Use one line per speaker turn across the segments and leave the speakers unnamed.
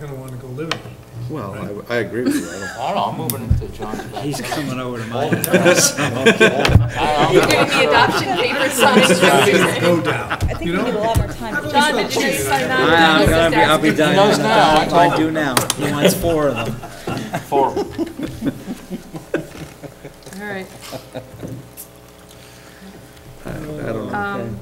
gonna wanna go live in it.
Well, I, I agree with you. I don't-
I don't know, I'm moving to John's back.
He's coming over to
All
my
the
house.
time. I
You're
don't
gonna
know.
be adoption paper signed.
Go down.
I think
You
we need a
know?
lot more time. to-
John, did you know you signed that?
I'm
He's
gonna
just
be, I'll be
asking.
done.
knows now, I
That's what I
told
do now. He wants four of them.
Four.
All right.
I don't know.
Um,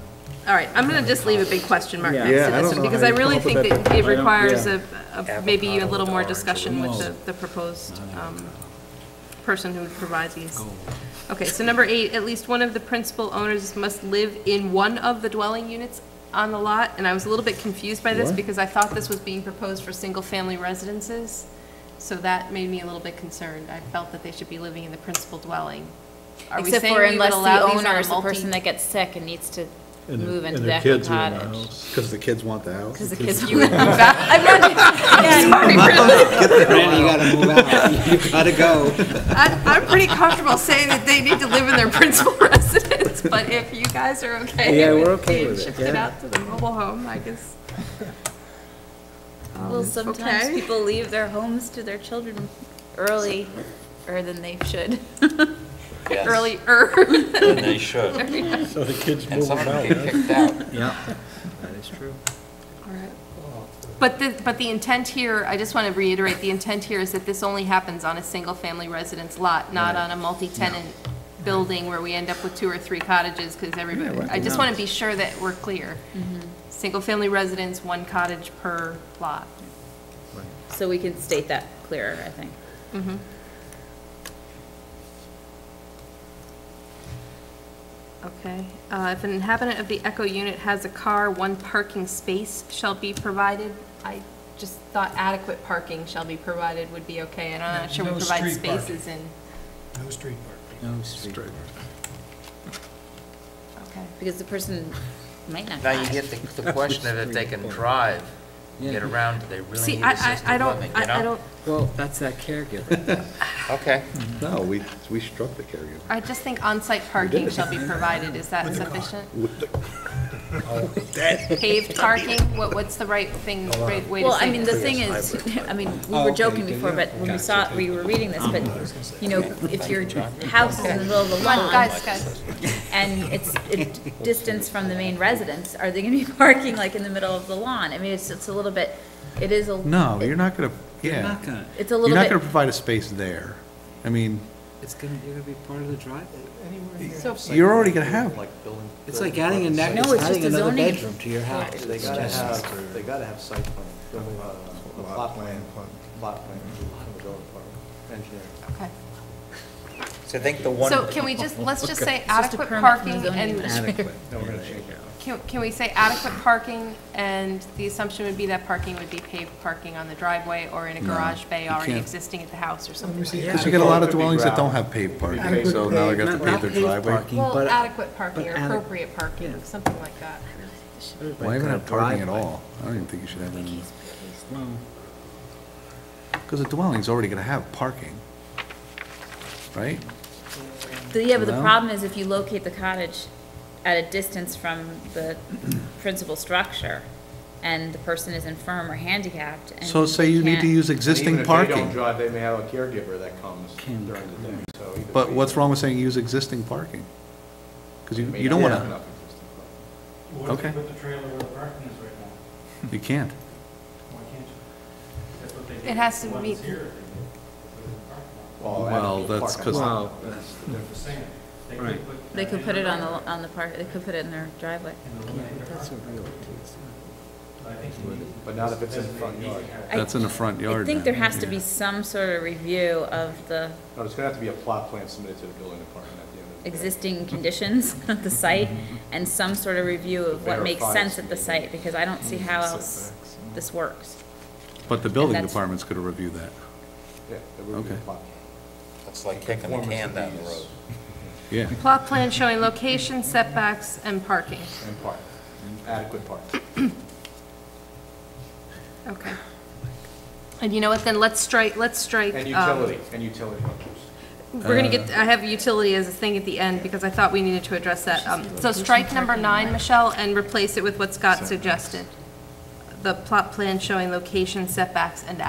All right, I'm gonna just leave a big question mark
Yeah.
next to
Yeah, I
this
don't
one,
know
because
how
I
you
really
come
think
up with
that it
I don't-
requires
yeah.
a, a- maybe a little more discussion with the, the proposed um, person who would provide these. Okay, so number eight, at least one of the principal owners must live in one of the dwelling units on the lot, and I was a little bit confused by this,
What?
because I thought this was being proposed for single-family residences, so that made me a little bit concerned. I felt that they should be living in the principal dwelling. Are we
Except
saying
for
we would
unless
allow
the
these on
owner
a
is the person
multi-
that gets sick and needs to
And their-
move
and
into the
their
actual
kids are in the
cottage.
house.
Because the kids want the house?
Because the kids.
You would move out. I'm not, I'm sorry, really.
Randy, you gotta move out. You gotta go.
I- I'm pretty comfortable saying that they need to live in their principal residence, but if you guys are okay.
Yeah, we're
with
okay
being
with it,
Shifted
yeah.
out to the mobile home, I guess.
Well, sometimes
okay.
people leave their homes to their children early, or than they should.
Yes,
Earlier.
And they should.
So the kids
And
move
some
out.
of them
huh?
get kicked out.
Yeah, that is true.
But the, but the intent here, I just want to reiterate, the intent here is that this only happens on a single-family residence lot, not on a multi-tenant building where we end up with two or three cottages, because everybody, I just want to be sure that we're clear. Single-family residence, one cottage per lot.
So we can state that clearer, I think.
Okay, uh, if an inhabitant of the Echo unit has a car, one parking space shall be provided. I just thought adequate parking shall be provided would be okay, and I'm not sure we
No
provide
street parking.
spaces in.
No street parking.
No street.
Okay.
Because the person might not
Now you
die.
get the, the question of if they can drive, get around, do they really
See,
need
I,
assisted
I, I don't,
living, you
I I
know?
don't,
Well, that's that caregiver.
Okay.
No, we, we struck the caregiver.
I just think on-site parking shall be provided, is that sufficient?
With the-
Paved parking, what, what's the right thing, right way to
Well, I
say
mean, the
this?
thing is, I mean, we
Oh,
were
okay,
joking
yeah,
before, but when we saw, we were reading this, but, you know, if your house is in the middle of the
Come on,
lawn
guys, guys,
and it's a distance from the main residence, are they gonna be parking like in the middle of the lawn? I mean, it's, it's a little bit, it is a.
No, you're not gonna,
You're
yeah.
not gonna,
It's a
You're
little
not gonna
bit,
provide a space there. I mean,
it's gonna, you're gonna be part of the driveway.
you're already gonna have,
Like building.
It's like adding a neck,
No, it's
adding
just a
another
zoning-
bedroom to your house.
They gotta have, they gotta have site plan, building, uh, a plot plan, plot plan, from the building department, engineering.
okay.
So I think the one.
So can we just, let's just say
just a
adequate
permit from the
parking
zoning
and
Adequate.
Can, can we say adequate parking, and the assumption would be that parking would be paved parking on the driveway or in a garage bay already
can't.
existing at the house or something like that?
because you get a lot of dwellings that don't have paved parking, so now they're gonna
Not
pave
not
their
paved
driveway.
parking,
Well,
but
adequate parking or
but ade-
appropriate parking,
yeah.
something like that.
Why even have parking at all? I don't even think you should have any, because a dwelling's already gonna have parking, right?
the- yeah, but the
Well-
problem is if you locate the cottage at a distance from the principal structure and the person is infirm or handicapped and.
So say you need to
can't-
use
And
existing
Even if they don't
parking,
drive, they may have a caregiver that comes during the day, so. either
but
way,
what's wrong with saying use existing parking? Because you,
may
you don't
not have
wanna,
enough existing parking.
What if
Okay.
you put the trailer where the parking is right now?
you can't.
Why can't you? That's what they did.
It has to
The ones
meet-
here, they did. They put it in the parking lot.
Well,
Well,
adequate
that's
Oh, parking.
'cause- Wow.
They're the same. They could
Right.
put-
They could put it on the, on the park, they could put it in their driveway.
And eliminate the parking. But I think you need-
But not if it's in the front yard.
I-
That's in the front
I
yard
think
now.
there has to be some sort of review of the
No, there's gonna have to be a plot plan submitted to the building department at the end of the day.
existing conditions of the site and some sort of review of what makes
Verify
sense
it's
at the site, because I don't see how else
Setbacks.
this works.
But the building
that's-
department's gonna review that.
Yeah, there would be a
Okay.
plot. plan.
It's like kicking a can down the road.
Yeah.
Plot plan showing location, setbacks, and parking.
And park, adequate park.
Okay. And you know what, then let's strike, let's strike.
And
um,
utility, and utility hookers.
We're gonna get, I have utility as a thing at the end, because I thought we needed to address that. Um, So strike number nine, Michelle, and replace it with what Scott suggested. the plot plan showing location setbacks and